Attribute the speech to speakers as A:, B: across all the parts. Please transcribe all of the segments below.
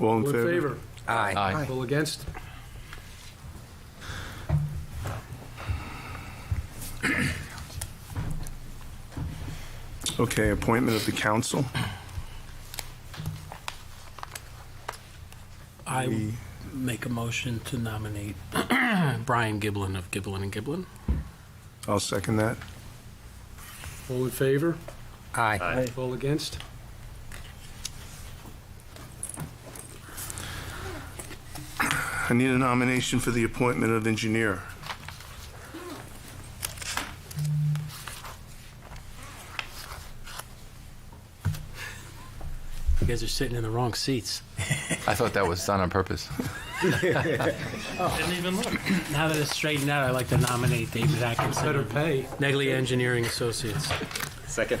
A: All in
B: All in
A: favor?
B: favor?
C: Aye.
D: Aye.
B: All against?
A: Okay, appointment of the council.
E: I make a motion to nominate Brian Giblin of Giblin and Giblin.
A: I'll second that.
B: All in favor?
C: Aye.
B: All against?
A: I need a nomination for the appointment of engineer.
E: You guys are sitting in the wrong seats.
D: I thought that was done on purpose.
E: Didn't even look. Now that it's straightened out, I'd like to nominate David Atkinson
B: Better
E: of
B: pay.
E: Negley Engineering Associates.
C: Second.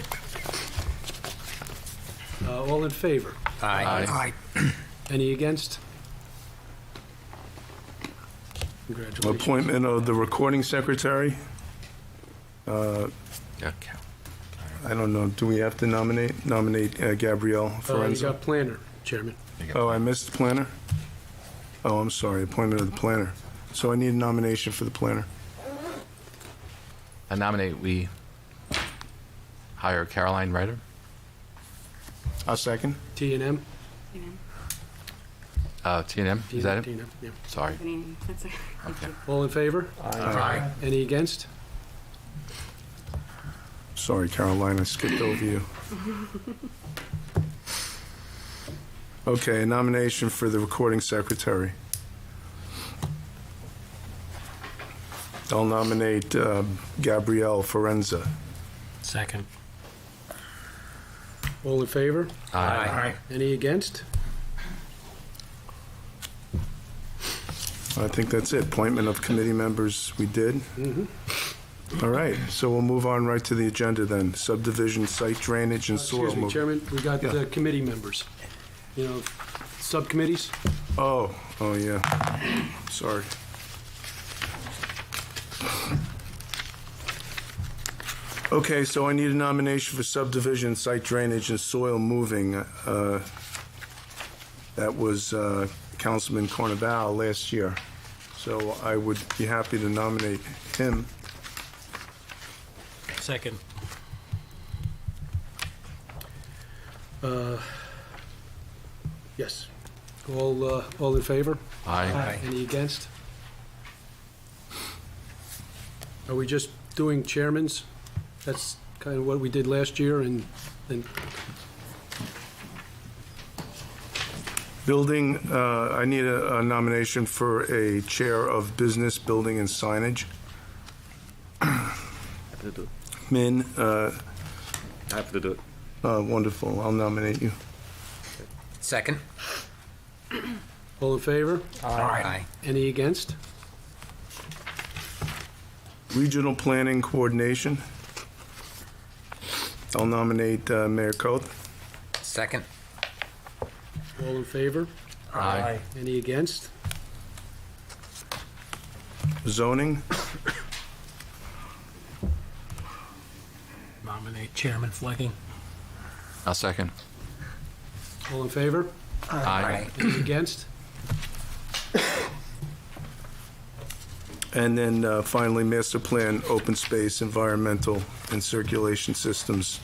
B: Uh, All in favor?
C: Aye.
A: Aye.
B: Any against? Congratulations.
A: Appointment of the recording secretary.
D: Okay.
A: I don't know, do we have to nominate, nominate uh, Gabrielle
B: Uh, You
A: Forenza?
B: got planner, Chairman.
A: Oh, I missed the planner? Oh, I'm sorry, appointment of the planner. So I need a nomination for the planner.
D: I nominate we hire Caroline Ryder.
A: I'll second.
B: T and M?
D: Uh, T and M, is that
B: T
D: it?
B: and M, yeah.
D: Sorry.
F: That's okay.
D: Okay.
B: All in favor?
D: Aye.
B: Any against?
A: Sorry, Caroline, I skipped over you. Okay, a nomination for the recording secretary. I'll nominate uh, Gabrielle Forenza.
E: Second.
B: All in favor?
D: Aye.
B: Any against?
A: I think that's it. Appointment of committee members, we did.
B: Mm-hmm.
A: All right, so we'll move on right to the agenda then. Subdivision, site drainage, and soil
B: Uh, Excuse me,
A: movement.
B: Chairman, we got
A: Yeah.
B: the committee members. You know, subcommittees?
A: Oh, oh, yeah. Sorry. Okay, so I need a nomination for subdivision, site drainage, and soil moving. Uh, That was uh, Councilman Cornabale last year. So I would be happy to nominate him.
E: Second.
B: Yes. All, uh, all in favor?
D: Aye.
B: Any against? Are we just doing chairmans? That's kind of what we did last year and, and
A: Building, uh, I need a a nomination for a chair of business, building, and signage.
G: have to do it.
A: Min, uh,
G: I have to do it.
A: uh, wonderful, I'll nominate you.
C: Second.
B: all in favor?
C: Aye.
B: Any against?
A: Regional Planning Coordination. I'll nominate uh, Mayor Coth.
C: Second.
B: All in favor?
D: Aye.
B: Any against?
A: Zoning,
E: Nominate Chairman Flecking.
D: I'll second.
B: All in favor?
D: Aye.
B: Any against?
A: and then uh, finally Master Plan, Open Space, Environmental, and Circulation Systems.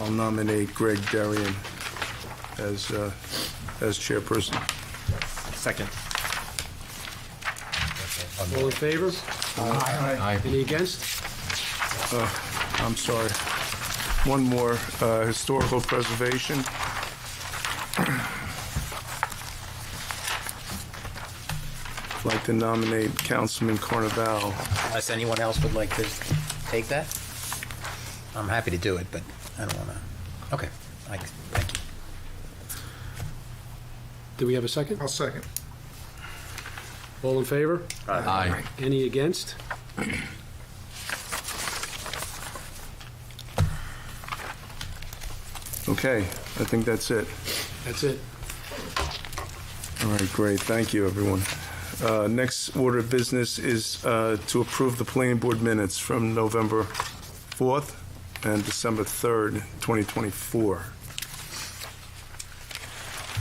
A: I'll nominate Greg Darian as, uh, as chairperson.
G: Second.
B: All in favor?
D: Aye.
B: Any against?
A: I'm sorry. One more, uh, Historical Preservation. Like to nominate Councilman Carnaval.
C: Unless anyone else would like to take that? I'm happy to do it, but I don't want to. Okay. I- Thank you.
B: Do we have a second?
A: I'll second.
B: All in favor?
D: Aye.
B: Any against?
A: Okay, I think that's it.
B: That's it.
A: All right, great, thank you, everyone. Uh, Next order of business is uh, to approve the planning board minutes from November 4th and December 3rd, 2024.